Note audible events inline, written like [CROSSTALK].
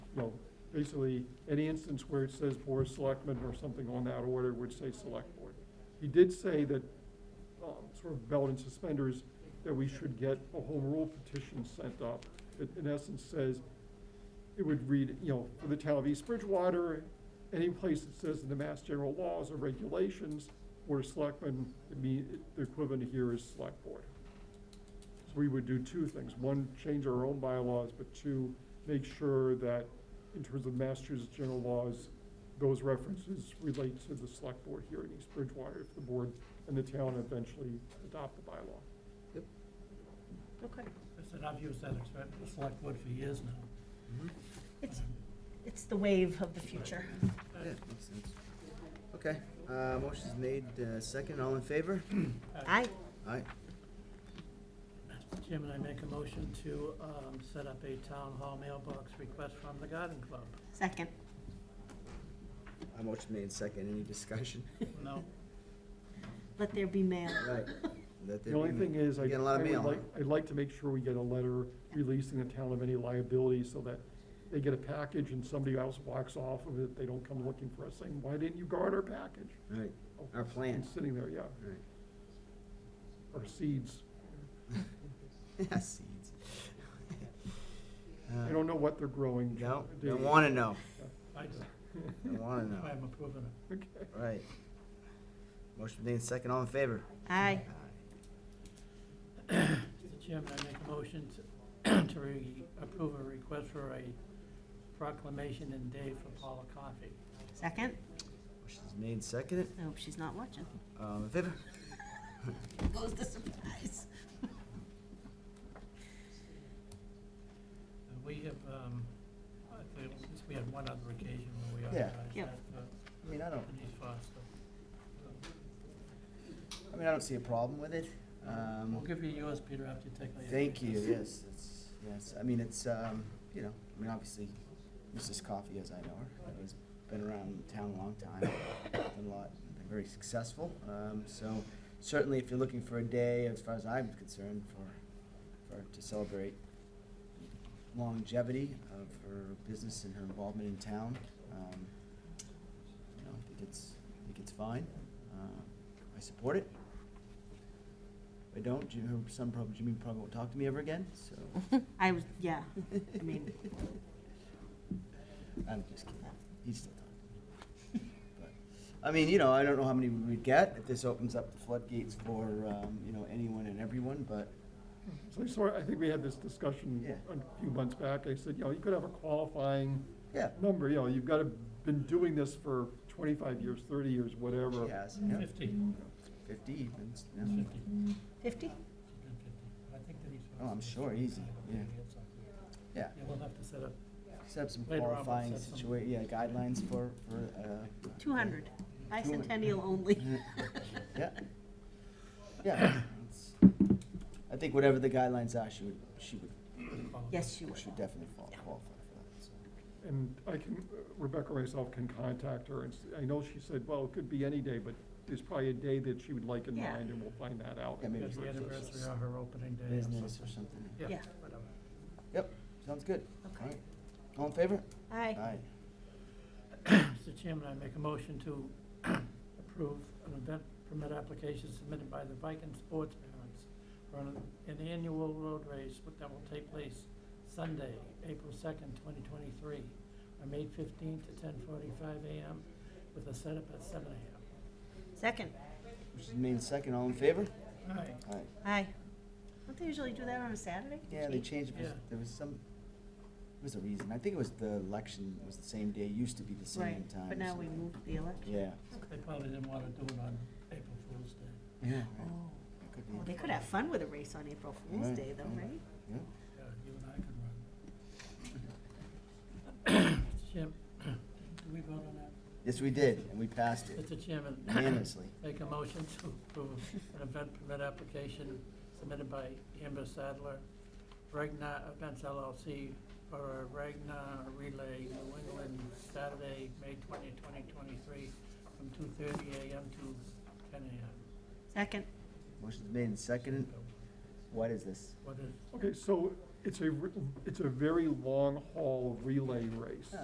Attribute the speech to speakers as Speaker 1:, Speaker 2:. Speaker 1: you know, basically, any instance where it says board of selectmen or something on that order would say select board. He did say that, um, sort of belt and suspenders, that we should get a home rule petition sent up. It in essence says, it would read, you know, for the town of East Bridgewater, any place that says in the mass general laws or regulations, board of selectmen, it mean, the equivalent here is select board. So we would do two things. One, change our own bylaws, but two, make sure that in terms of Massachusetts general laws, those references relate to the select board here in East Bridgewater if the board and the town eventually adopt the bylaw.
Speaker 2: Okay.
Speaker 3: I said, I've used that expression, the select word for years now.
Speaker 2: It's, it's the wave of the future.
Speaker 4: Yeah, makes sense. Okay, uh, motion's made, uh, second, all in favor?
Speaker 2: I,
Speaker 4: Aye.
Speaker 3: Mr. Chairman, I make a motion to um, set up a town hall mailbox request from the garden [LAUGHS] club.
Speaker 2: second.
Speaker 4: Uh, motion made second, any discussion?
Speaker 3: No,
Speaker 2: Let there be mail.
Speaker 4: Right. Let there
Speaker 1: The only
Speaker 4: be-
Speaker 1: thing is, I,
Speaker 4: we Get a lot
Speaker 1: I
Speaker 4: of
Speaker 1: would
Speaker 4: mail,
Speaker 1: like,
Speaker 4: huh?
Speaker 1: I'd like to make sure we get a letter releasing the town of any liability so that they get a package and somebody else walks off of it, they don't come looking for us saying, why didn't you guard our package?
Speaker 4: Right, [LAUGHS]
Speaker 1: Oh,
Speaker 4: our plan,
Speaker 1: It's sitting there, yeah,
Speaker 4: right.
Speaker 1: or seeds.
Speaker 4: Yeah, seeds.
Speaker 1: I don't know what they're growing.
Speaker 4: No,
Speaker 1: Dave.
Speaker 4: Uh, don't wanna know,
Speaker 3: I just,
Speaker 4: don't wanna know,
Speaker 3: I'm approving it.
Speaker 1: [LAUGHS] Okay.
Speaker 4: right. Motion made second, all in favor?
Speaker 2: Aye.
Speaker 3: Mr. Chairman, I make a motion to, [CLEARS THROAT] to re- approve a request for a proclamation and day for Paula Coffey.
Speaker 2: Second?
Speaker 4: Motion's made second,
Speaker 2: I hope she's not watching.
Speaker 4: all in favor?
Speaker 2: Goes the surprise.
Speaker 3: Uh, We have, um, I think, since we had one other occasion where we
Speaker 4: Yeah.
Speaker 3: authorized
Speaker 2: Yep.
Speaker 3: that, uh,
Speaker 4: I mean, I don't,
Speaker 3: Denise Foster.
Speaker 4: I mean, I don't see a problem with it, um.
Speaker 3: We'll give you yours, Peter, after you take. all your
Speaker 4: Thank you,
Speaker 3: pictures.
Speaker 4: yes, it's, yes, I mean, it's, um, you know, I mean, obviously, Mrs. Coffey, as I know her, has been around town a long time, done a lot, been very successful, um, so certainly if you're looking for a day, as far as I'm concerned, for, for, to celebrate longevity of her business and her involvement in town, um, you know, I think it's, I think it's fine, um, I support it, if I don't, Jim, some probably, Jimmy probably won't talk to me ever again, so.
Speaker 2: I was, yeah, I mean,
Speaker 4: I'm just kidding. He's still talking. But, I mean, you know, I don't know how many we'd get if this opens up the floodgates for, um, you know, anyone and everyone, but,
Speaker 1: So I sort of- I think we had this discussion
Speaker 4: Yeah.
Speaker 1: a few months back. I said, you know, you could have a qualifying
Speaker 4: yeah.
Speaker 1: number, you know, you've got to, been doing this for twenty-five years, thirty years, whatever.
Speaker 4: She has, yeah,
Speaker 3: Fifty,
Speaker 4: fifty even, s-
Speaker 3: It's
Speaker 4: yeah.
Speaker 2: 50?
Speaker 3: fifty. She's been 50. I think Denise
Speaker 4: Oh, I'm
Speaker 3: Foster.
Speaker 4: sure, easy, yeah. Yeah,
Speaker 3: Yeah, we'll have to set up,
Speaker 4: set up some
Speaker 3: Later on, we'll
Speaker 4: qualifying
Speaker 3: set some-
Speaker 4: situa, yeah, guidelines for, for, uh.
Speaker 2: 200. Bicentennial only.
Speaker 4: [LAUGHS] Yeah. Yeah. it's- I think whatever the guidelines are, she would, she would,
Speaker 2: Yes, she was.
Speaker 4: she would definitely fall- qualify for that, so.
Speaker 1: And I can, Rebecca or myself can contact her, and s- I know she said, well, it could be any day, but there's probably a day that she would like in
Speaker 2: Yeah.
Speaker 1: mind, and we'll find that out.
Speaker 4: Yeah, maybe
Speaker 3: Because the
Speaker 4: it's-
Speaker 3: anniversary of her opening day. or
Speaker 4: business or
Speaker 3: something.
Speaker 4: something.
Speaker 3: Yeah,
Speaker 2: Yeah.
Speaker 3: whatever.
Speaker 4: Yep, sounds good.
Speaker 2: Okay.
Speaker 4: All right. All in favor?
Speaker 2: Aye.
Speaker 3: Mr. Chairman, I make a motion to [CLEARS THROAT] approve an event permit application submitted by the Viking sports parents for an- an annual road race that will take place Sunday, April second, twenty twenty-three, from eight fifteen to ten forty-five AM with a setup at seven AM.
Speaker 2: Second?
Speaker 4: Which is made second, all in favor?
Speaker 3: All right,
Speaker 4: Aye.
Speaker 2: Aye. Don't they usually do that on a Saturday?
Speaker 4: Yeah, they
Speaker 2: Gee.
Speaker 4: changed, it.
Speaker 3: Yeah.
Speaker 4: there was some, there was a reason. I think it was the election was the same day, used to be the same
Speaker 2: Right,
Speaker 4: time.
Speaker 2: but
Speaker 4: or
Speaker 2: now we
Speaker 4: something.
Speaker 2: moved the election.
Speaker 4: Yeah.
Speaker 3: they probably didn't want to do it on April Fool's Day.
Speaker 4: Yeah.
Speaker 2: Oh,
Speaker 4: right. Could be.
Speaker 2: Well, they could have fun with a race on April Fool's
Speaker 4: Right,
Speaker 2: Day though,
Speaker 4: right.
Speaker 2: right?
Speaker 4: Yeah.
Speaker 3: Yeah, Uh, you and I could run. Mr. Chairman, do we vote on that?
Speaker 4: Yes, we did, and we passed it
Speaker 3: Mr. Chairman.
Speaker 4: unanimously.
Speaker 3: Make a motion to approve an event permit application submitted by Amber Sadler, Regna Events LLC, for a Regna Relay New England, Saturday, May 20, 2023, from 2:30 a.m. to 10 a.m.
Speaker 2: Second?
Speaker 4: Motion's made and seconded. What is this?
Speaker 3: What is,
Speaker 1: Okay, so it's a, r- it's a very long haul relay race.